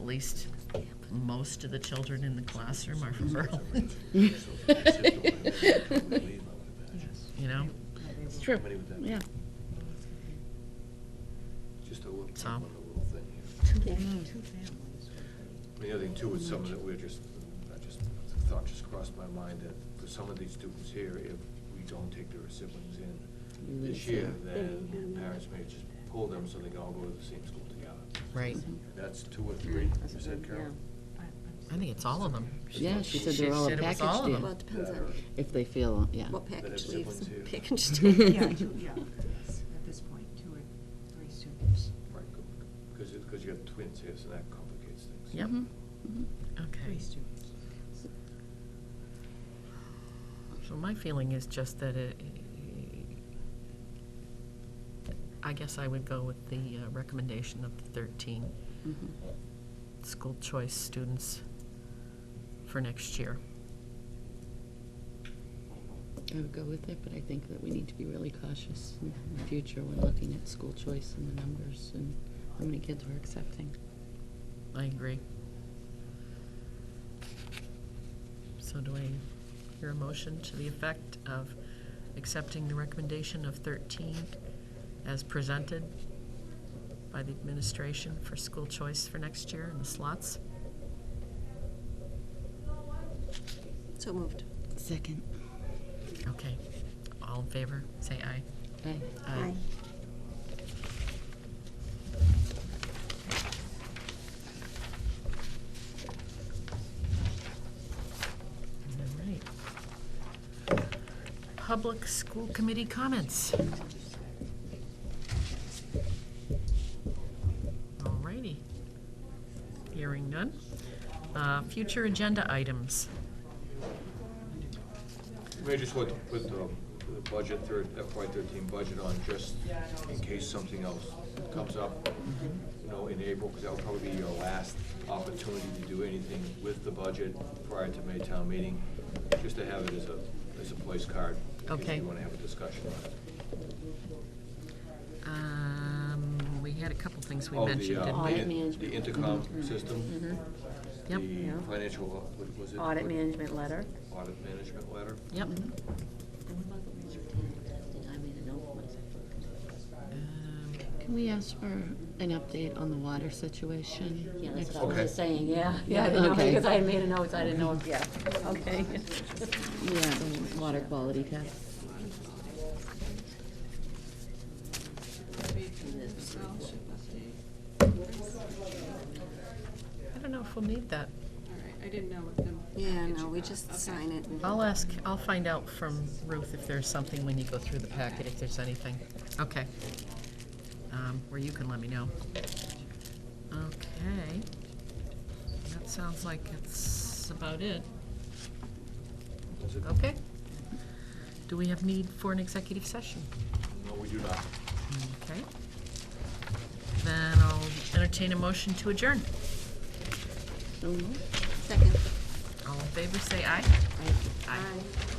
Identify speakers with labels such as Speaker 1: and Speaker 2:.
Speaker 1: least most of the children in the classroom are from Berlin, you know?
Speaker 2: It's true,
Speaker 3: Somebody with that.
Speaker 2: yeah.
Speaker 3: Just a little,
Speaker 1: Tom?
Speaker 3: one little thing here.
Speaker 4: Two families.
Speaker 3: The other thing too is something that we're just, I just, the thought just crossed my mind that for some of these students here, if we don't take their siblings in this year, then parents may just pull them so they can all go to the same school together.
Speaker 1: Right.
Speaker 3: That's two or three, you said, Carol?
Speaker 1: I think it's all of them.
Speaker 2: Yeah, she said they're all a
Speaker 1: said it was all
Speaker 2: package
Speaker 1: of
Speaker 2: deal,
Speaker 1: them.
Speaker 4: Well, it depends
Speaker 3: That
Speaker 4: on
Speaker 3: are-
Speaker 2: if they feel, uh, yeah.
Speaker 4: what
Speaker 3: have
Speaker 4: package leaves
Speaker 3: siblings
Speaker 4: and
Speaker 3: here.
Speaker 4: package
Speaker 5: Yeah,
Speaker 4: stays.
Speaker 5: two, yeah, at this point, two or three students.
Speaker 3: Right, because, because you have twins here, so that complicates things.
Speaker 1: Yep.
Speaker 2: Mhm, mhm.
Speaker 1: Okay.
Speaker 5: Three students.
Speaker 1: So my feeling is just that it, I guess I would go with the uh, recommendation of the 13
Speaker 2: Mhm.
Speaker 1: school choice students for next year.
Speaker 2: I would go with it, but I think that we need to be really cautious in the future when looking at school choice and the numbers and how many kids we're accepting.
Speaker 1: I agree. So do I hear a motion to the effect of accepting the recommendation of 13 as presented by the administration for school choice for next year in the slots?
Speaker 4: So moved.
Speaker 2: Second.
Speaker 1: Okay. All in favor, say aye.
Speaker 2: Aye.
Speaker 1: Aye. All right. Public School Committee comments. All righty. Hearing none. Uh, Future agenda items.
Speaker 3: May I just want to put the the budget, third FY thirteen budget on just in case something else comes up, you know, in April, because that'll probably be your last opportunity to do anything with the budget prior to May town meeting, just to have it as a, as a place card. In case
Speaker 1: Okay.
Speaker 3: you want to have a discussion on it.
Speaker 1: Um, We had a couple things we
Speaker 3: Oh, the,
Speaker 1: mentioned,
Speaker 3: uh,
Speaker 1: didn't
Speaker 3: the
Speaker 1: we?
Speaker 3: in- The intercom system,
Speaker 1: Mm-hmm. Yep.
Speaker 3: the financial, uh, what was it?
Speaker 6: Audit management letter.
Speaker 3: Audit management letter.
Speaker 1: Yep. Um,
Speaker 2: Can we ask for an update on the water situation?
Speaker 6: Yeah, that's
Speaker 2: next
Speaker 6: what I was just saying, yeah, yeah, I
Speaker 2: Yeah,
Speaker 6: didn't know,
Speaker 2: okay.
Speaker 6: because I had made a note, I didn't know, if- yeah, okay.
Speaker 2: week? Yeah, the water quality test.
Speaker 4: Scholarship update.
Speaker 1: I don't know if we'll need that.
Speaker 7: All right, I didn't know what the.
Speaker 4: Yeah, no,
Speaker 7: package
Speaker 4: we
Speaker 7: was.
Speaker 4: just
Speaker 7: Okay.
Speaker 4: sign it. and-
Speaker 1: I'll ask, I'll find out from Ruth if there's something when you go through the packet, if there's anything. Okay. Um, Or you can let me know. Okay. That sounds like it's about it.
Speaker 3: Is it?
Speaker 1: Okay. Do we have need for an executive session?
Speaker 3: No, we do not.
Speaker 1: Okay. Then I'll entertain a motion to adjourn.
Speaker 2: So moved.
Speaker 4: Second.
Speaker 1: All in favor, say aye. Aye.